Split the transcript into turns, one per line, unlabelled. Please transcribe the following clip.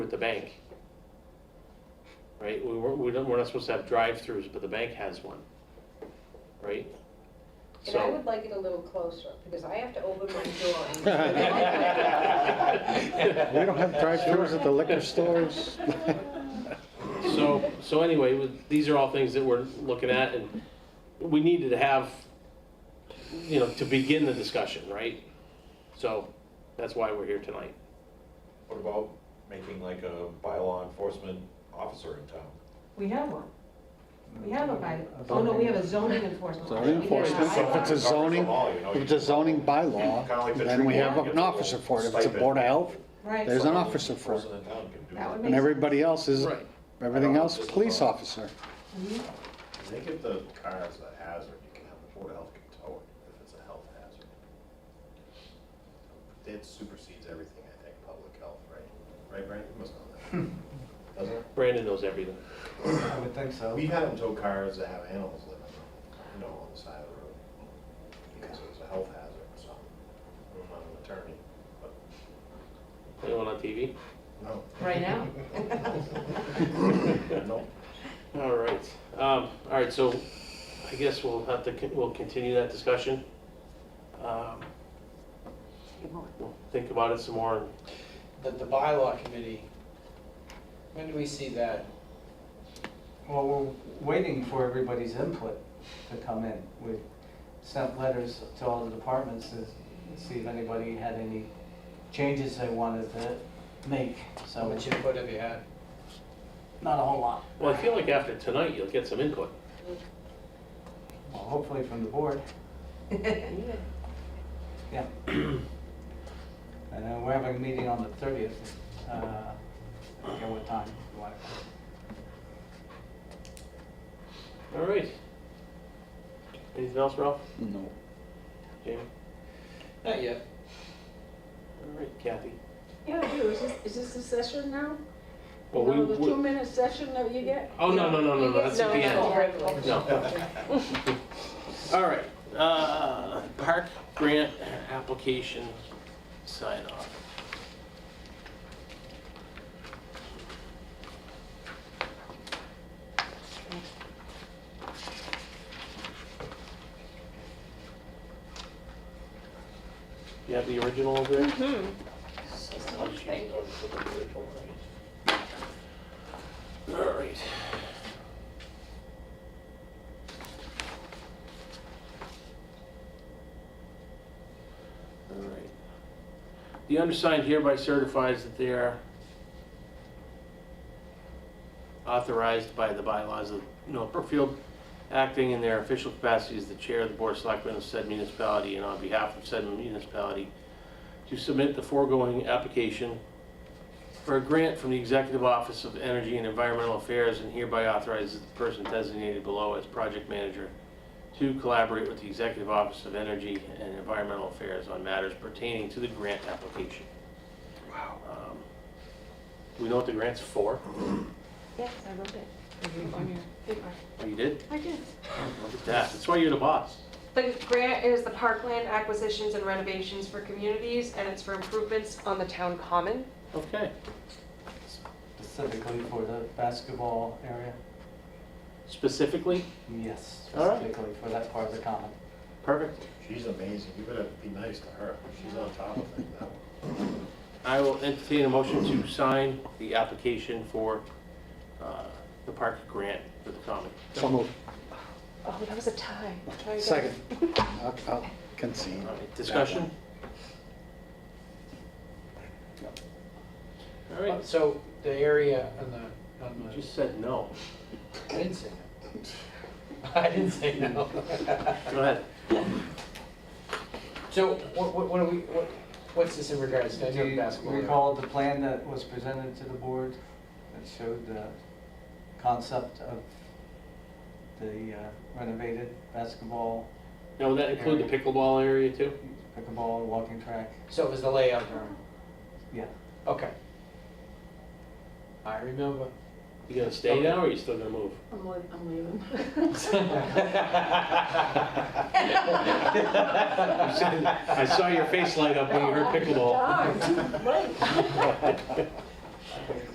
the bank. Right, we, we're, we don't, we're not supposed to have drive-throughs, but the bank has one, right?
And I
So,
would like it a little closer, because I have to open my door. and-
We don't have drive-throughs at the liquor stores.
so, so anyway, with, these are all things that we're looking at, and we needed to have, you know, to begin the discussion, right? So, that's why we're here tonight.
What about making like a bylaw enforcement officer in town?
We have one. We have a by, oh no, we have a zoning enforcement.
Zoning
We have
enforcement, so if it's a
Covers them
zoning,
all, you know,
if it's a zoning
Kinda
bylaw,
like the
then we
tree
have
warden
an
gets a
officer for it. If it's a
stipend.
board of health,
Right.
There's an
Some
officer for it.
Person in town can do
That would
that.
make
and everybody else is,
Right.
everything else, police officer.
I think if the car is a hazard, you can have the Board of Health can tow it if it's a health hazard. It supersedes everything, I think, public health, right? Right, Brian? You must
Hmm.
know that. Doesn't it?
Brandon knows everything.
I would think so.
We've had them tow cars that have animals living, you know, on the side of the road. Because it was a health hazard, so. I'm not an attorney, but
Anyone on TV?
no.
Right now.
No.
All right, um, all right, so I guess we'll have to, con- we'll continue that discussion. Um, We'll Think about it some more.
The, the bylaw committee, when do we see that?
Well, we're waiting for everybody's input to come in. We sent letters to all the departments to see if anybody had any changes they wanted to make,
How
so
much input have you had?
not a whole lot.
Well, I feel like after tonight, you'll get some input.
Well, Hopefully from the board, yeah. And then we're having a meeting on the thirtieth, uh, I forget what time you want it.
All right. Anything else, Ralph?
No.
Jamie?
Not yet.
All right, Kathy?
Yeah, I do, is this, is this the session now?
Well,
No,
we-
the
we-
two-minute session that you get?
Oh, no, no, no, no, no, that's at the
No,
end.
no.
No. All right, uh, park grant application sign off. You have the original over there? All right. All right. The undersigned hereby certifies that they are authorized by the bylaws of Northfield, acting in their official capacity as the chair of the board of selectmen of said municipality and on behalf of said municipality to submit the foregoing application for a grant from the Executive Office of Energy and Environmental Affairs and hereby authorizes the person designated below as project manager to collaborate with the Executive Office of Energy and Environmental Affairs on matters pertaining to the grant application. Wow. Do we know what the grant's for?
Yes, I wrote it.
Oh, You did?
I did.
Look at that. That's why you're the boss.
The grant is the Parkland Acquisitions and Renovations for Communities, and it's for improvements on the town common.
Okay.
Specifically for the basketball area,
Specifically?
yes,
All right.
specifically for that part of the common.
Perfect.
She's amazing. You better be nice to her. She's on top of it now.
I will entertain a motion to sign the application for uh, the park grant for the common.
So moved.
Oh, that was a tie. Try again.
Second. I'll, I'll concede.
All right, Discussion? All right.
Uh, So the area on the, on
You
the,
just said no.
I didn't say no. I didn't say no.
Go ahead.
So what, what, what are we, what, what's this in regards to? I
Do
know
you
basketball.
recall the plan that was presented to the board that showed the concept of the uh, renovated basketball,
Now, would that include the pickleball area too?
pickleball, walking track?
So it was the layout room.
Yeah,
Okay. I remember.
You gonna stay now, or you still gonna move?
I'm leaving, I'm leaving.
I saw your face light up when you heard pickleball.
Darn, right.